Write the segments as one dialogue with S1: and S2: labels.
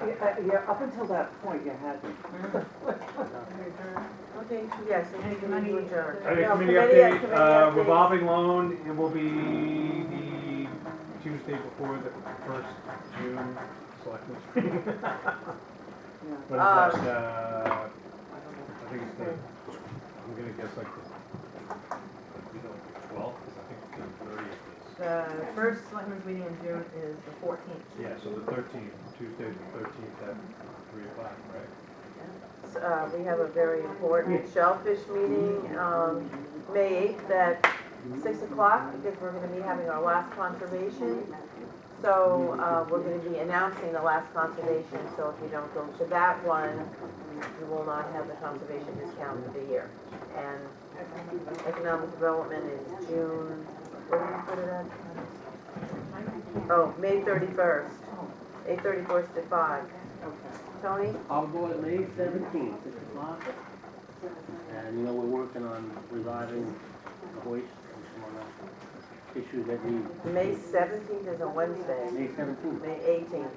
S1: Uh, Yeah, up until that point, you hadn't.
S2: Okay, yes, and we can do adjourn.
S3: Okay,
S2: No,
S3: committee
S2: committee-
S3: update, uh,
S2: committee updates.
S3: revolving loan, it will be the Tuesday before the first June selectmen's
S1: Uh,
S3: meeting.
S1: Yeah.
S3: What is that, uh, I think it's the, I'm gonna guess like the, you know, twelfth, because I think it's the thirtieth
S2: The first selectmen's meeting in June is the fourteenth.
S3: is. Yeah, so the thirteenth, Tuesday the thirteenth at three o'clock, right?
S2: Uh, we have a very important shellfish meeting, um, May eighth at six o'clock, because we're gonna be having our last conservation. So, uh, we're gonna be announcing the last conservation, so if you don't go to that one, you will not have the conservation discount for the year. And economic development is June, where did we put it at? Oh, May thirty-first, eight thirty-first to five. Tony?
S4: I'll go at May seventeenth, six o'clock. And, you know, we're working on reviving the hoist, and some other issues that we,
S2: May seventeenth is a Wednesday,
S4: May seventeenth,
S2: May eighteenth.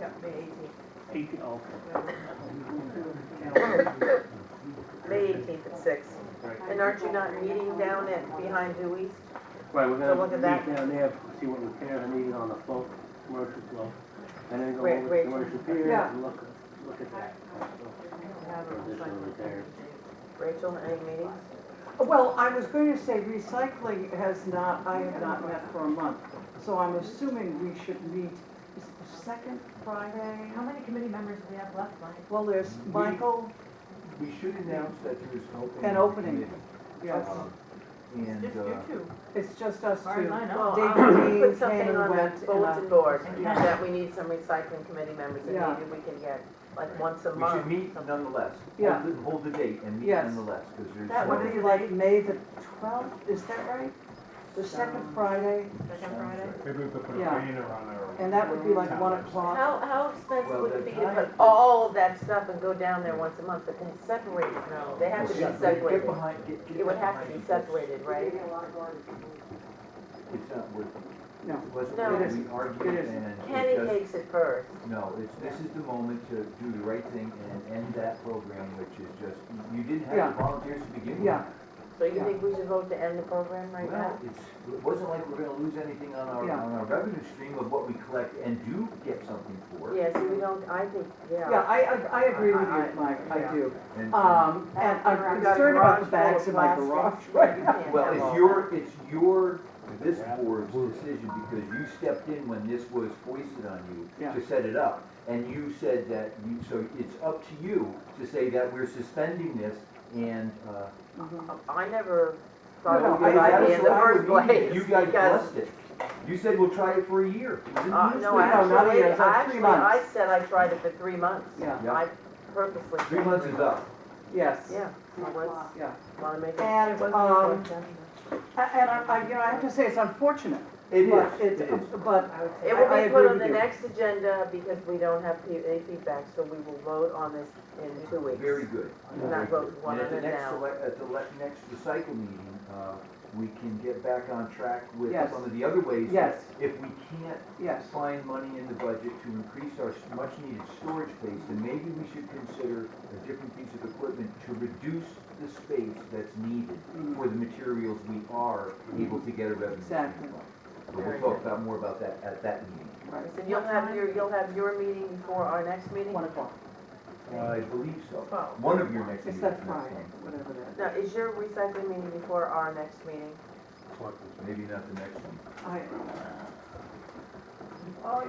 S2: Yep, May eighteenth.
S4: eighteen, okay.
S2: May eighteenth at six. And aren't you not meeting down at, behind Due East?
S4: Right, we're
S2: So
S4: gonna
S2: look at that.
S4: meet down there, see what repairs are needed on the float, commercial float. And then go
S2: Wait,
S4: over
S2: wait.
S4: to commercial pier
S1: Yeah.
S4: and look, look at that. For additional repairs.
S2: Rachel, any meetings?
S1: Well, I was going to say recycling has not, I have not met for a month, so I'm assuming we should meet is it the second Friday.
S5: How many committee members do we have left, Mike?
S1: Well, there's Michael,
S6: We should announce that there is an opening.
S1: An opening. yes,
S6: Um, And,
S5: Just
S6: uh,
S5: you two,
S1: it's just us
S5: as far as
S1: two.
S5: I know.
S2: Well,
S1: Dave
S2: I'll
S1: Dean
S2: put
S1: came
S2: something
S1: and
S2: on
S1: went
S2: the
S1: and
S2: bulletin
S1: I-
S2: board
S5: Yeah.
S2: that we need some recycling committee members and
S1: Yeah.
S2: maybe we can get like once a
S6: we should
S2: month.
S6: meet nonetheless. Hold
S1: Yeah.
S6: the- Hold the date and meet
S1: Yes.
S6: nonetheless, because there's.
S2: That
S1: What
S2: would
S1: would
S6: some-
S1: be like, May the twelfth, is that right? The second Friday,
S5: Second Friday?
S3: Maybe we could put a
S1: Yeah.
S3: banner on our,
S1: and that would be like one o'clock.
S2: How, how expensive
S6: Well,
S2: would it
S6: the
S2: be to put
S6: time-
S2: all of that stuff and go down there once a month, but then separate, no, they have to
S6: Well,
S2: be
S6: get- Get
S2: separated.
S6: behind, get, get.
S2: It would have to
S6: behind
S2: be
S6: it.
S2: separated, right?
S6: It's not worth,
S1: No,
S6: it wasn't
S2: No.
S6: worth
S1: It
S6: the
S1: It
S6: argument
S1: isn't.
S6: and. it
S2: Kenny
S6: doesn't-
S2: takes it first.
S6: No, it's, this is the moment to do the right thing and end that program, which is just, you- you didn't
S1: Yeah.
S6: have the volunteers to begin with.
S1: yeah,
S2: So you
S1: Yeah.
S2: think we should vote to end the program right now?
S6: Well, it's, it wasn't like we're gonna lose anything on our,
S1: Yeah.
S6: on our revenue stream of what we collect and do get something for.
S2: Yeah, see, we don't, I think,
S1: yeah,
S2: yeah.
S1: I, I, I agree with you, Mike, I do.
S6: And-
S2: Uh,
S1: Um, and I'm
S2: You got a
S1: concerned about the
S2: garage full of
S1: bags in my garage
S2: plastic.
S1: right
S2: You
S1: now.
S2: can't
S6: Well,
S2: have all
S6: it's
S2: that.
S6: your, it's your, this board's decision, because you stepped in when this was foisted on you
S1: Yeah.
S6: to set it up. And you said that, you, so it's up to you to say that we're suspending this and, uh.
S1: Mhm.
S2: I never thought
S1: No, I-
S2: it was a good
S1: I-
S2: idea in the
S6: I-
S2: first place.
S6: You guys
S2: because,
S6: blessed it. You said we'll try it for a year. It was in the
S2: Uh, no,
S6: newspaper.
S1: not a
S2: actually,
S1: year, it's like three
S2: actually, I
S1: months.
S2: said I tried it for three months.
S1: Yeah.
S6: Yeah.
S2: I purposely.
S6: Three months is up.
S1: Yes,
S2: Yeah, I was,
S1: yeah.
S2: wanna make it.
S1: And, um, A- And I, I- you know, I have to say, it's unfortunate,
S6: It
S1: but
S6: is, it
S1: it's, uh,
S6: is.
S1: but
S2: It
S1: I- I
S2: will be
S1: agree
S2: put on
S1: with
S2: the
S1: you.
S2: next agenda because we don't have pe- any feedback, so we will vote on this in two weeks.
S6: Very good.
S2: We're not voting one
S6: And at the
S2: of them
S6: next,
S2: now.
S6: select- at the le- next recycle meeting, uh, we can get back on track with
S1: Yes.
S6: some of the other ways.
S1: Yes.
S6: If we can't
S1: yes,
S6: find money in the budget to increase our s- much-needed storage space, then maybe we should consider a different piece of equipment to reduce the space that's needed
S2: Mm.
S1: Mhm.
S6: for the materials we are able to get a revenue stream
S1: Exactly.
S6: from. But we'll talk about more about that at that meeting.
S1: right,
S2: Listen, you'll have your, you'll have your meeting before our next meeting?
S1: one o'clock.
S6: I believe so.
S2: Twelve.
S6: One of your
S1: It's
S6: next meetings.
S1: that
S6: next
S1: Friday,
S6: month.
S1: whatever that.
S2: Now, is your recycling meeting before our next meeting?
S6: Maybe not the next one.
S1: I,
S4: Our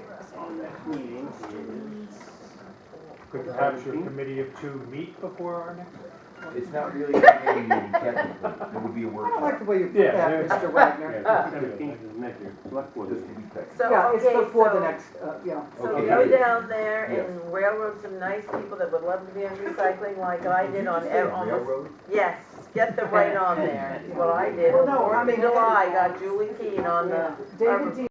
S4: next meeting is,
S3: could perhaps your committee of two meet before our next?
S6: It's not really a committee meeting technically, it would be a
S1: I don't like
S6: workshop,
S1: the way you put
S3: Yeah,
S1: that,
S3: yeah.
S1: Mr. Wagner.
S4: seventeenth is next, select board
S6: just
S4: meeting.
S6: to be technical.
S2: So,
S1: Yeah, it's
S2: okay,
S1: before the
S2: so-
S1: next, uh, yeah.
S2: So
S6: Okay.
S2: go down there
S6: Yes.
S2: and railroad some nice people that would love to be in recycling like I did on,
S6: Did you
S2: ev-
S6: say
S2: almost,
S6: railroad?
S2: yes, get the right on there, is what I did.
S1: Well, no, I
S2: In
S1: mean-
S2: July, got Julie Keane on the
S1: David Dean